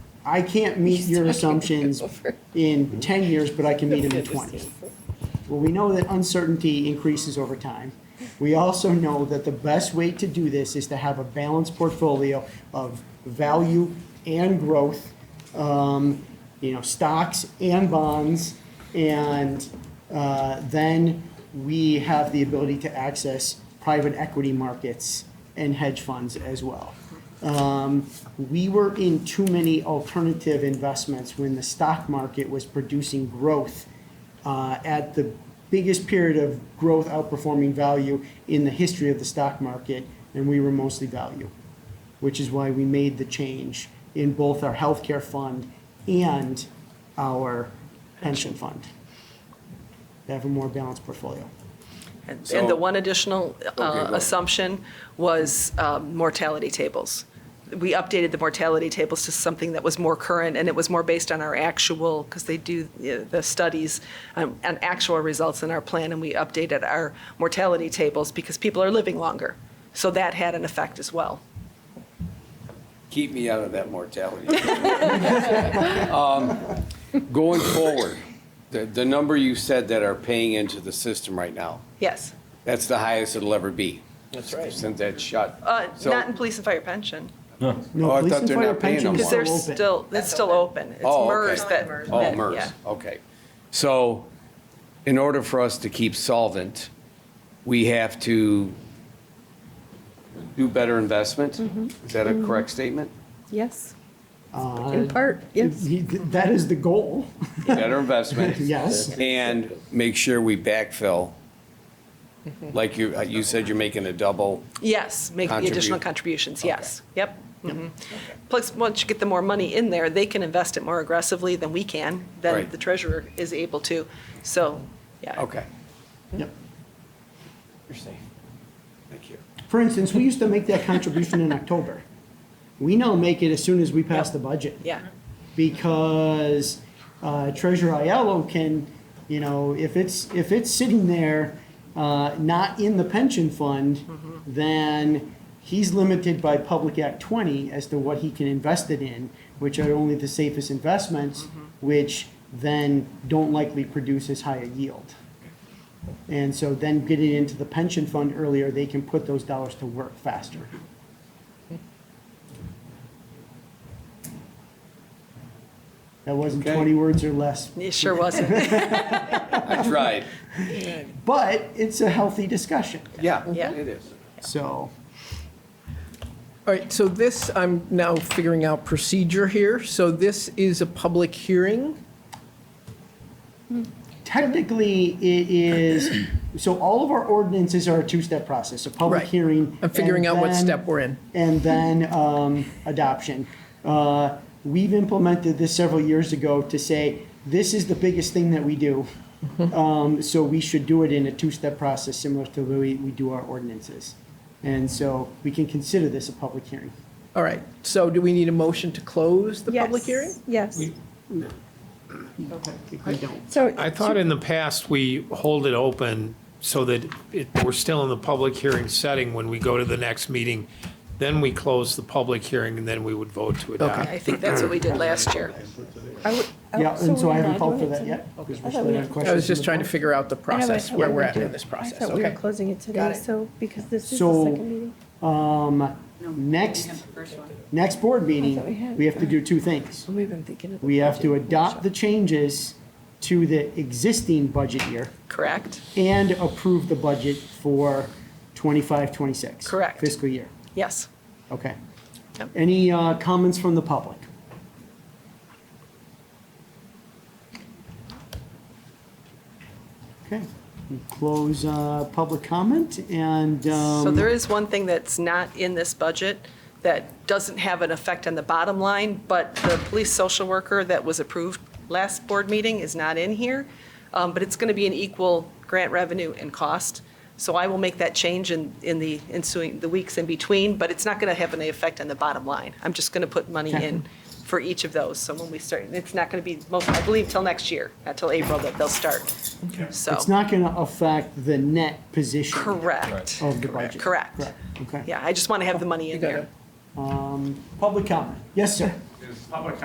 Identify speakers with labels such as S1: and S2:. S1: I can't meet your assumptions
S2: over.
S1: in 10 years, but I can meet them in 20. Well, we know that uncertainty increases over time. We also know that the best way to do this is to have a balanced portfolio of value and growth, um, you know, stocks and bonds. And uh, then we have the ability to access private equity markets and hedge funds as well. Um, We were in too many alternative investments when the stock market was producing growth uh, at the biggest period of growth outperforming value in the history of the stock market, and we were mostly value, which is why we made the change in both our healthcare fund and our pension fund. To have a more balanced portfolio.
S2: And
S3: So-
S2: the one additional uh,
S3: Okay, go.
S2: assumption was um, mortality tables. We updated the mortality tables to something that was more current, and it was more based on our actual, because they do uh, the studies, um, and actual results in our plan, and we updated our mortality tables because people are living longer. So that had an effect as well.
S3: Keep me out of that mortality. Um, Going forward, the, the number you said that are paying into the system right now,
S2: Yes.
S3: that's the highest it'll ever be. That's right. Since that's shut.
S2: Uh,
S3: So-
S2: Not in police and fire pension,
S3: Oh,
S1: No,
S3: I
S1: police
S3: thought
S1: and
S3: they're
S1: fire
S3: not paying
S1: pension
S3: no
S1: is
S2: because
S1: still
S3: more.
S2: they're
S1: open.
S2: still, it's still open. It's
S3: Oh, okay.
S2: MERS that.
S3: Oh,
S2: that-
S3: MERS,
S2: yeah.
S3: okay. So in order for us to keep solvent, we have to do better investment?
S2: Mm-hmm.
S3: Is that a correct statement?
S4: Yes,
S1: Uh,
S4: in part, yes.
S1: he- That is the goal,
S3: Better investment?
S1: yes.
S3: And make sure we backfill. Like you, uh, you said you're making a double,
S2: Yes, make the additional
S3: Contribute.
S2: contributions, yes. Yep. mhm. Plus, once you get the more money in there, they can invest it more aggressively than we can, than
S3: Right.
S2: the treasurer is able to. So, yeah.
S3: okay.
S1: Yep.
S3: You're safe. Thank you.
S1: For instance, we used to make that contribution in October. We now make it as soon as we pass the budget.
S2: Yeah,
S1: Because uh, Treasurer Aiello can, you know, if it's, if it's sitting there, uh, not in the pension fund, then he's limited by Public Act 20 as to what he can invest it in, which are only the safest investments, which then don't likely produce as high a yield. And so then get it into the pension fund earlier, they can put those dollars to work faster. That wasn't
S3: Okay.
S1: 20 words or less,
S2: it sure wasn't.
S3: I tried.
S1: but it's a healthy discussion,
S3: Yeah,
S2: Yeah.
S3: it is.
S1: so.
S5: All right, so this, I'm now figuring out procedure here. So this is a public hearing?
S1: Technically, it is, so all of our ordinances are a two-step process, a public
S5: Right.
S1: hearing.
S5: I'm figuring
S1: and
S5: out what
S1: then-
S5: step we're in.
S1: And then um, adoption. Uh, We've implemented this several years ago to say, this is the biggest thing that we do.
S5: Mm-hmm.
S1: Um, So we should do it in a two-step process similar to the way we do our ordinances. And so we can consider this a public hearing.
S5: All right, so do we need a motion to close the public hearing?
S4: Yes.
S1: If We don't.
S4: So
S6: I thought in the past, we hold it open so that it, we're still in the public hearing setting when we go to the next meeting. Then we close the public hearing and then we would vote to
S2: I
S6: adopt.
S2: think that's what we did last year.
S4: I would- oh,
S1: Yeah, and so
S4: we're
S1: I
S4: not
S1: haven't called for
S4: doing it
S1: that
S4: today.
S1: yet. because
S4: I
S1: we're
S4: thought
S1: still having
S4: we were-
S5: I was
S1: questions
S5: just
S1: in
S5: trying to
S1: the-
S5: figure out the
S4: I know, but I
S5: process,
S4: thought
S5: where
S4: we
S5: we're
S4: were
S5: at
S4: doing-
S5: in this
S4: I
S5: process,
S4: thought we were
S5: okay?
S4: closing it today,
S5: Got it.
S4: so, because this is
S1: So-
S4: the second meeting.
S1: Next, next board
S4: thought we
S1: meeting,
S4: had-
S1: we have to do two things.
S4: Maybe I'm thinking of the
S1: We have to
S4: budget
S1: adopt
S4: workshop.
S1: the changes to the existing budget year.
S2: Correct?
S1: and approve the budget for 25, 26.
S2: Correct.
S1: Fiscal year.
S2: Yes.
S1: Okay.
S2: Yep.
S1: Any uh, comments from the public? Okay, we close uh, public comment and. um,
S2: So there is one thing that's not in this budget that doesn't have an effect on the bottom line, but the police social worker that was approved last board meeting is not in here. Um, But it's going to be an equal grant revenue and cost. So I will make that change in, in the ensuing, the weeks in between, but it's not going to have any effect on the bottom line. I'm just going to put money in for each of those. So when we start, it's not going to be, most I believe, till next year, not till April that they'll start. So,
S1: It's not going to affect the net position.
S2: correct.
S1: Of the budget.
S2: Correct.
S1: Okay.
S2: Yeah, I just want to have the money in
S5: You got
S2: there.
S5: it.
S1: Public comment. Yes, sir.
S7: Is public